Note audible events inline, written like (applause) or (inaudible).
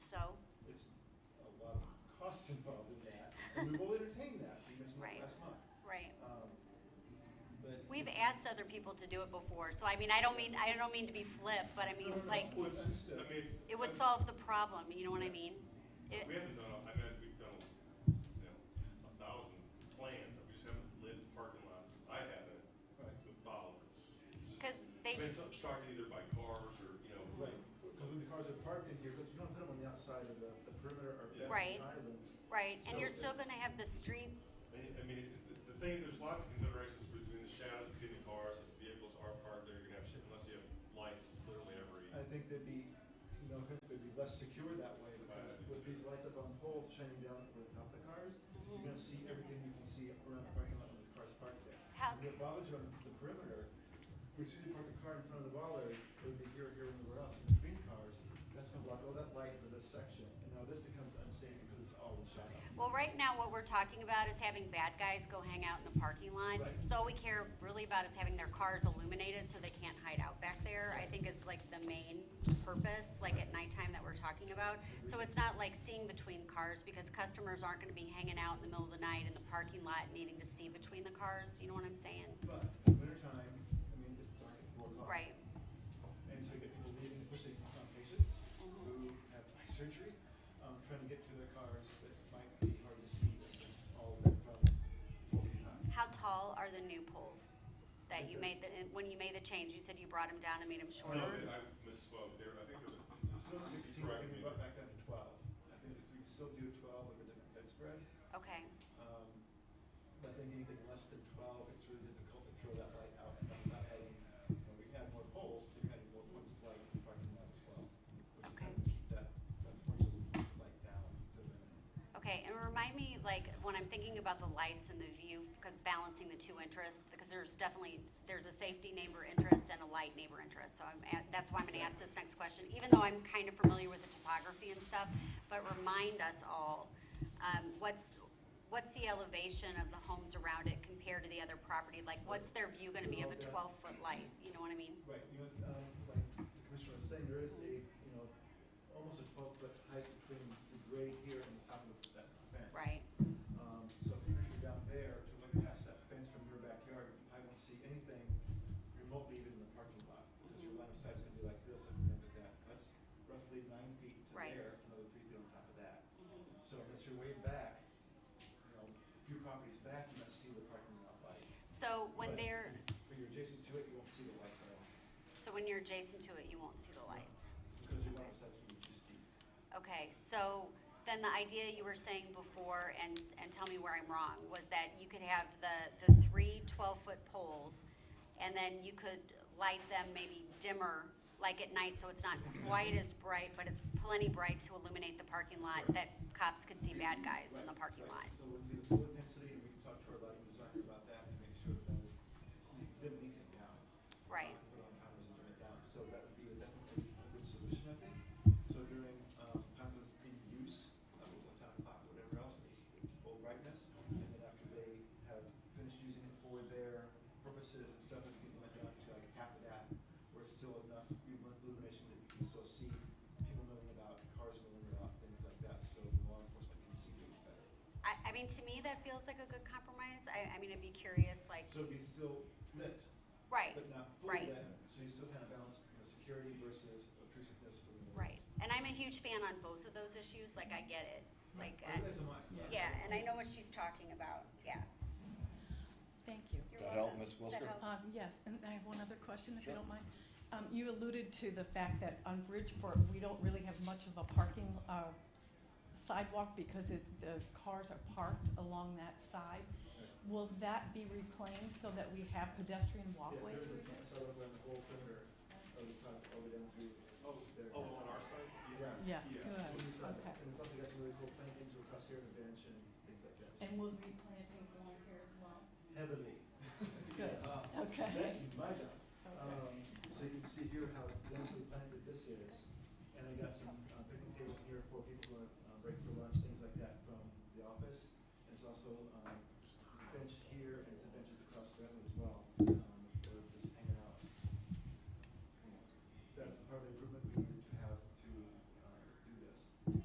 costs involved in that, and we will entertain that, we mentioned that Right. last month. Right. Um, But. We've asked other people to do it before, so I mean, I don't mean, I don't mean to be flip, but I mean, like, Well, it's just, I uh, mean, it's. it would I- solve the problem, you know what I mean? It- We haven't done, a- I mean, we've done, you know, a thousand plans, we just haven't lit parking lots. I haven't Right. with bollards. It's just- 'Cause they- I mean, It's obstructed either by cars or, you know. Right, because when the cars are parked in here, 'cause you don't put them on the outside of the the perimeter or Yeah. Right. pedestrian islands. Right, and you're So- still gonna have the street, I mean, I mean, it- the thing, there's lots of considerations between the shadows between the cars, if the vehicles are parked there, you're gonna have shit unless you have lights literally every. I think they'd be, you know, they'd be less secure that way, because with these lights up on poles shining down from the top of the cars, you're Mm-hmm. gonna see everything you can see around the parking lot when the car's parked there. How- When the bollards are on the perimeter, as soon as you park a car in front of the bollard, it'll be here, here, and everywhere else, in between cars, that's gonna block all that light for this section, and now this becomes unsafe because it's all shut up. well, right now, what we're talking about is having bad guys go hang out in the parking lot. Right. So all we care really about is having their cars illuminated so they can't hide out back there, I think is like the main purpose, like at nighttime that we're talking about. So it's not like seeing between cars, because customers aren't gonna be hanging out in the middle of the night in the parking lot needing to see between the cars, you know what I'm saying? But, in winter time, I mean, it's dark at four o'clock. Right, And so you get people leaving, pushing on patients who Mm-hmm. have eye surgery, um, trying to get to their cars that might be hard to see if it's all lit from full time. how tall are the new poles that you made, the- when you made the change, you said you brought them down and made them No, shorter? I misspoke there, I think it was. Still sixteen, I think we brought back down to twelve. I think if we can still do twelve with a different bed spread. Okay, Um, but I think anything less than twelve, it's really difficult to throw that light out without adding, when we add more poles, we're adding more points of light in the parking lot as well. Which is kind of Okay. keep that, that points of light down to the minimum. okay, and remind me, like, when I'm thinking about the lights and the view, because balancing the two interests, because there's definitely, there's a safety neighbor interest and a light neighbor interest, so I'm, at- that's why I'm gonna ask this next question, even though I'm kind of familiar with the topography and stuff, but remind us all, um, what's, what's the elevation of the homes around it compared to the other property? Like, what's their view gonna be of a Yeah. twelve-foot light, you know what I mean? Right, you know, um, like the commissioner was saying, there is a, you know, almost a twelve foot height between the grade here and the top of that fence. Right, Um, so if you're down there to look past that fence from your backyard, you probably won't see anything remotely even in the parking lot. Because your line of sight's gonna be like this and then like that. That's roughly nine feet to Right. Mm-hmm. there, it's another three feet on top of that. So unless you're way back, you know, a few properties back, you might see the parking lot lights. so when But they're, When you're adjacent to it, you won't so when you're adjacent to it, you won't see see the lights at all. the lights? Because your line of sight's gonna be too steep. Okay, so then the idea you were saying before, and, and tell me where I'm wrong, was that you could have the, the three 12-foot poles, and then you could light them maybe dimmer, like at night, so it's not quite as bright, but it's plenty bright to illuminate the parking lot, that cops could see bad guys in the Right, parking right. lot. So we'll do the full intensity, and we can talk to our lighting designer about that and make sure that that's, we didn't leak it down. Right. Uh, Put on cameras and turn it down, so that would be a definitely a good solution, I think. So during, um, times of in use, uh, like ten o'clock, whatever else, it's, it's full brightness. And then after they have finished using it for their purposes and stuff, we can let down to like half of that, where it's still enough illumination that you can still see people moving about, cars moving about, things like that, so law enforcement can see things better. I, I mean, to me, that feels like a good compromise. I, I mean, I'd be curious, like, So it'd be still lit, right, but not right. fully lit, so you still kind of balance, you know, security versus obtrusiveness for the. Right. And I'm a huge fan on both of those issues. Like, I get it. Like, I- That's a mic, yeah. yeah, and I know what she's talking about. Yeah. Thank you. You're That help, welcome. Ms. Does Wilsker? that help? Um, Yes, and I have one other question, if you Sure. don't mind. Um, You alluded to the fact that on Bridgeport, we don't really have much of a parking uh, sidewalk because it- the cars are parked along that side. Right. Will that be reclaimed so that we have pedestrian Yeah, walkway there is a through fence there? out around the whole perimeter of the top, all the way down through. Oh, there. Oh, on our side? Yeah. Yeah, Yeah. So we good, decided- okay. And plus, they got some really cool plantings across here, and a bench and things like that. And will there be plantings along here as well? Heavily. (laughs) Good, Uh, okay. That's my job. Okay. Um, so you can see here how densely planted this is. And I got some uh, picnic tables here for people who are uh, break for um, Um, uh,